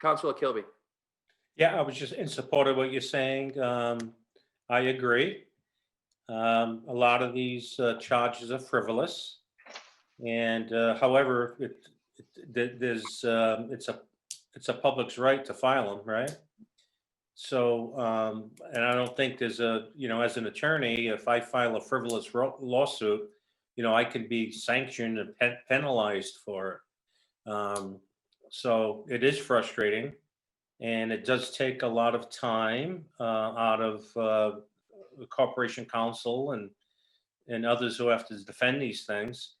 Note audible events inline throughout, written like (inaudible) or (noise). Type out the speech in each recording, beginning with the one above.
Councilor Kilby. Yeah, I was just in support of what you're saying. Um, I agree. Um, a lot of these uh, charges are frivolous. And uh, however, it, it- there- there's, um, it's a, it's a public's right to file them, right? So, um, and I don't think there's a, you know, as an attorney, if I file a frivolous ro- lawsuit, you know, I could be sanctioned and pen- penalized for it. Um, So it is frustrating. And it does take a lot of time uh, out of uh, the Corporation Council and, and others who have to defend these things.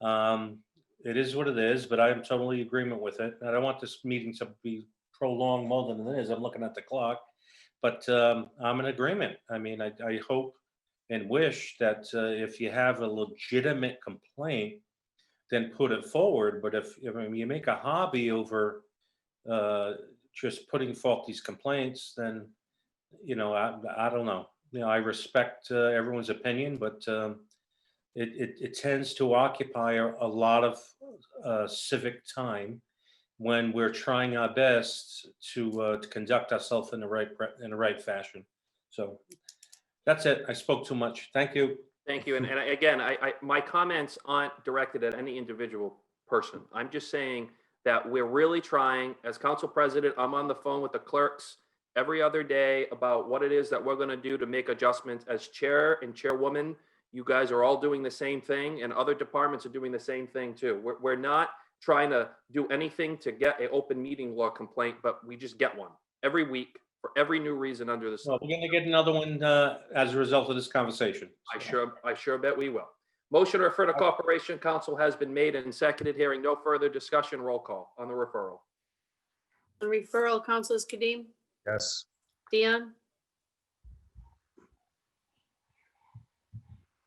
Um, It is what it is, but I am totally in agreement with it. I don't want this meeting to be prolonged more than it is. I'm looking at the clock. But um, I'm in agreement. I mean, I, I hope and wish that uh, if you have a legitimate complaint, then put it forward. But if, I mean, you make a hobby over uh, just putting forth these complaints, then, you know, I, I don't know. You know, I respect uh, everyone's opinion, but um, it, it, it tends to occupy a a lot of uh, civic time when we're trying our best to, uh, to conduct ourselves in the right, pre- in the right fashion. So that's it. I spoke too much. Thank you. Thank you. And, and I- again, I, I, my comments aren't directed at any individual person. I'm just saying that we're really trying, as council president, I'm on the phone with the clerks every other day about what it is that we're gonna do to make adjustments. As chair and chairwoman, you guys are all doing the same thing and other departments are doing the same thing too. We're, we're not trying to do anything to get a open meeting law complaint, but we just get one every week for every new reason under the sun. Well, we're going to get another one uh, as a result of this conversation. I sure, I sure bet we will. Motion to refer to Corporation Council has been made and seconded. Hearing no further discussion, roll call on the referral. On referral, Councilors Kadim, Yes. Dion,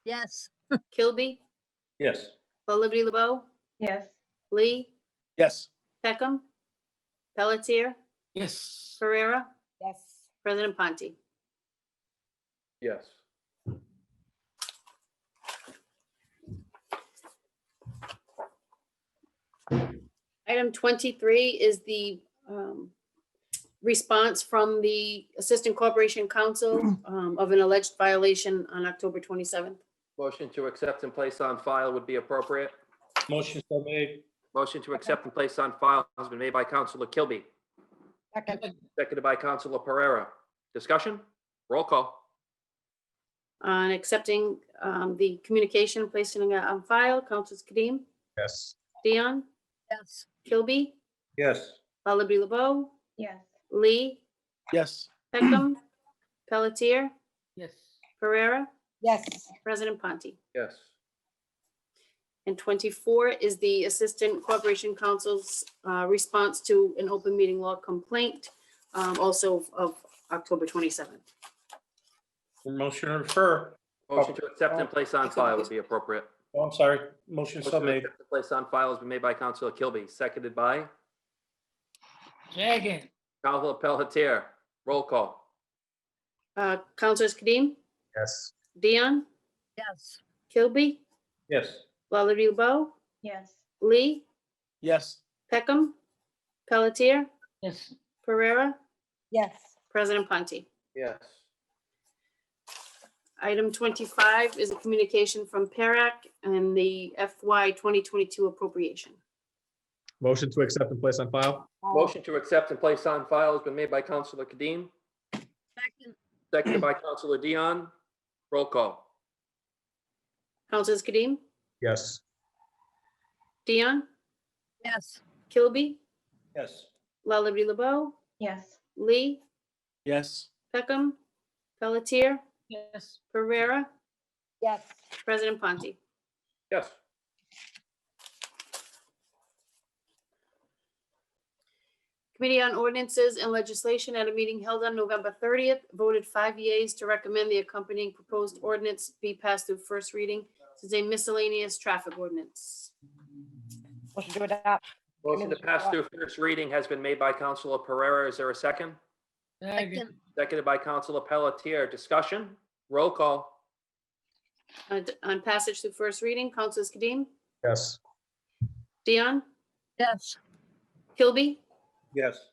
Yes, Kilby, Yes. La Liberty LeBeau, Yes. Lee, Yes. Peckham, Pelletier, Yes. Pereira, Yes. President Ponti. Yes. Item 23 is the um, response from the Assistant Corporation Counsel um, of an alleged violation on October 27th. Motion to accept and place on file would be appropriate. Motion so made. Motion to accept and place on file has been made by Counselor Kilby, Second. seconded by Counselor Pereira. Discussion? Roll call. On accepting um, the communication, placing it on file, Councilors Kadim, Yes. Dion, yes, Kilby, Yes. La Liberty LeBeau, Yes. Lee, Yes. Peckham, (clears throat) Pelletier, Yes. Pereira, Yes. President Ponti. Yes. And 24 is the Assistant Corporation Counsel's uh, response to an open meeting law complaint, um, also of October 27th. Motion to refer. Motion to accept and place on file would be appropriate. Oh, I'm sorry. Motion so Motion to made. accept and Place on file has been made by Counselor Kilby, seconded by Second. Counselor Pelletier. Roll call. Uh, Counselors Kadim, Yes. Dion, yes, Kilby, Yes. Lullaby LeBeau, Yes. Lee, Yes. Peckham, Pelletier, Yes. Pereira, Yes. President Ponti. Yes. Item 25 is a communication from PERAC and the FY 2022 appropriation. Motion to accept and place on file? Motion to accept and place on file has been made by Counselor Kadim, second, Seconded by Counselor Dion. Roll call. Counselors Kadim, Yes. Dion, yes, Kilby, Yes. Lullaby LeBeau, Yes. Lee, Yes. Peckham, Pelletier, Yes. Pereira, Yes. President Ponti. Yes. Committee on Ordinances and Legislation at a meeting held on November 30th voted five yeas to recommend the accompanying proposed ordinance be passed through first reading. This is a miscellaneous traffic ordinance. Motion to adopt. Motion to pass through first reading has been made by Counselor Pereira. Is there a second? second, Seconded by Counselor Pelletier. Discussion? Roll call. On- Uh, On passage through first reading, Councilors Kadim, Yes. Dion, yes, Kilby, Yes.